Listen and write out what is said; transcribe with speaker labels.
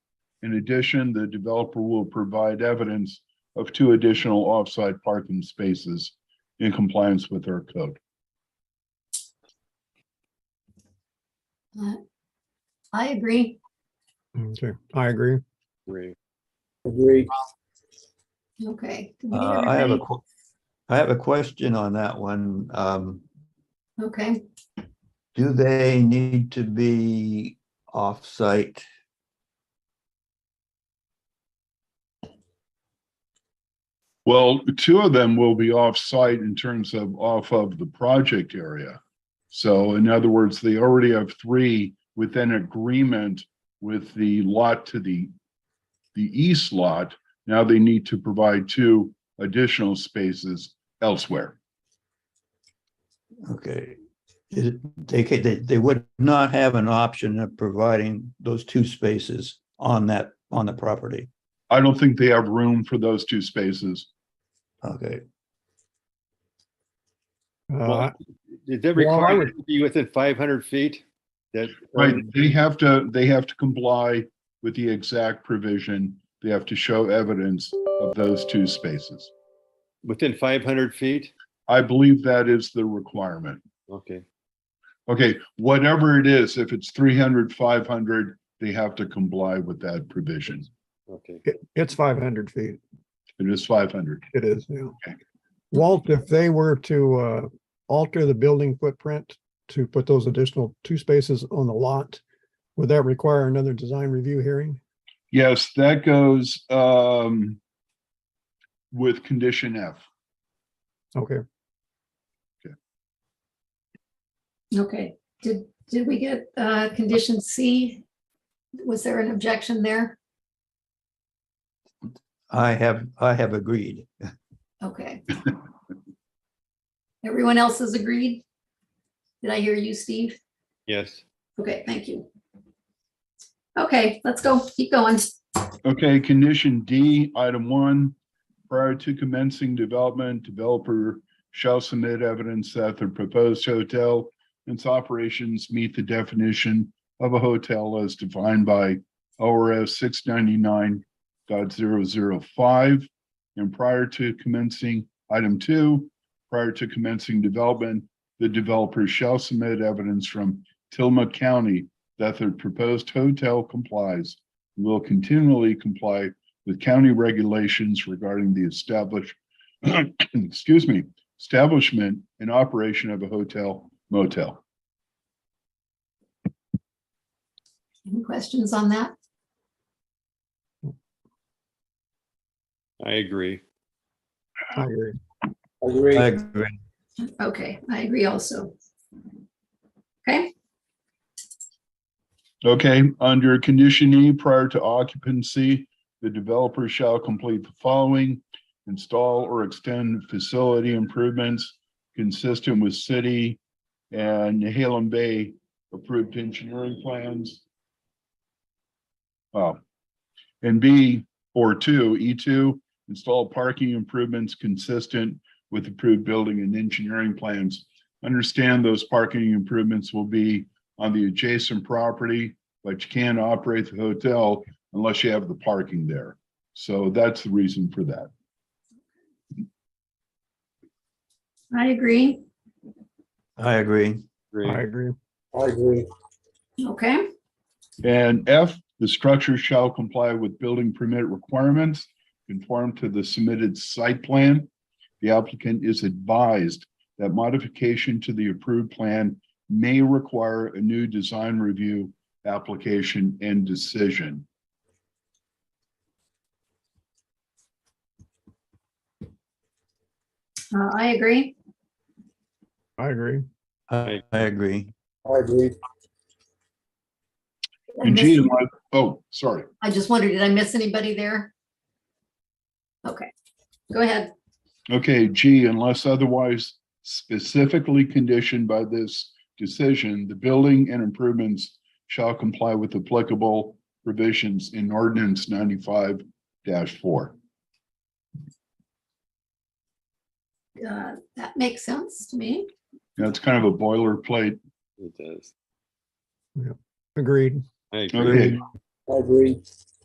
Speaker 1: In addition, the developer will provide evidence of two additional off-site parking spaces in compliance with our code.
Speaker 2: Uh, I agree.
Speaker 3: Okay, I agree.
Speaker 4: Agree.
Speaker 5: Agree.
Speaker 2: Okay. Did we get
Speaker 6: Uh, I have a,
Speaker 2: everybody?
Speaker 6: que- I have a question on that one. Um,
Speaker 2: Okay,
Speaker 6: do they need to be off-site?
Speaker 1: Well, two of them will be off-site in terms of off of the project area. So in other words, they already have three within agreement with the lot to the the east lot. Now they need to provide two additional spaces elsewhere.
Speaker 6: Okay. Is it- They, ca- they, they would not have an option of providing those two spaces on that, on the property.
Speaker 1: I don't think they have room for those two spaces.
Speaker 6: Okay,
Speaker 3: Uh,
Speaker 4: Is it
Speaker 3: Well, I
Speaker 4: required to be within five hundred feet? That.
Speaker 1: Right,
Speaker 4: Um,
Speaker 1: they have to, they have to comply with the exact provision. They have to show evidence of those two spaces.
Speaker 4: Within five hundred feet?
Speaker 1: I believe that is the requirement.
Speaker 4: Okay,
Speaker 1: Okay, whatever it is, if it's 300, 500, they have to comply with that provision.
Speaker 4: okay.
Speaker 3: it- It's five hundred feet.
Speaker 1: It is 500.
Speaker 3: It is, yeah.
Speaker 1: Okay.
Speaker 3: Walt, if they were to uh, alter the building footprint to put those additional two spaces on the lot, would that require another design review hearing?
Speaker 1: Yes, that goes um with condition F.
Speaker 3: Okay,
Speaker 2: okay. Did, did we get uh condition C? Was there an objection there?
Speaker 6: I have, I have agreed.
Speaker 2: Okay. Everyone else has agreed? Did I hear you, Steve?
Speaker 4: Yes,
Speaker 2: Okay, thank you. Okay, let's go. Keep going.
Speaker 1: Okay, condition D, item one, prior to commencing development, developer shall submit evidence that the proposed hotel and its operations meet the definition of a hotel as defined by ORS 699.005. And prior to commencing, item two, prior to commencing development, the developer shall submit evidence from Tillamook County that the proposed hotel complies will continually comply with county regulations regarding the establish, excuse me, establishment and operation of a hotel motel.
Speaker 2: Any questions on that?
Speaker 4: I agree.
Speaker 3: I agree.
Speaker 5: Agree.
Speaker 6: I agree.
Speaker 2: Okay, I agree also. Okay,
Speaker 1: Okay, under condition E, prior to occupancy, the developer shall complete the following. Install or extend facility improvements consistent with city and Halem Bay approved engineering plans. Oh, and B, or two, E two, install parking improvements consistent with approved building and engineering plans. Understand those parking improvements will be on the adjacent property, but you can't operate the hotel unless you have the parking there. So that's the reason for that.
Speaker 2: I agree.
Speaker 6: I agree.
Speaker 4: Agree.
Speaker 3: I agree.
Speaker 5: I agree.
Speaker 2: Okay,
Speaker 1: And F, the structure shall comply with building permit requirements, conform to the submitted site plan. The applicant is advised that modification to the approved plan may require a new design review application and decision.
Speaker 2: uh, I agree.
Speaker 3: I agree.
Speaker 6: I I agree.
Speaker 5: I agree.
Speaker 2: I
Speaker 1: And G,
Speaker 2: missed-
Speaker 1: am I- oh, sorry.
Speaker 2: I just wondered, did I miss anybody there? Okay, go ahead.
Speaker 1: Okay, G, unless otherwise specifically conditioned by this decision, the building and improvements shall comply with applicable provisions in ordinance ninety-five four.
Speaker 2: Uh, That makes sense to me.
Speaker 1: That's kind of a boilerplate.
Speaker 4: It does.
Speaker 3: Agreed.
Speaker 4: I agree.
Speaker 1: Okay,
Speaker 5: I agree.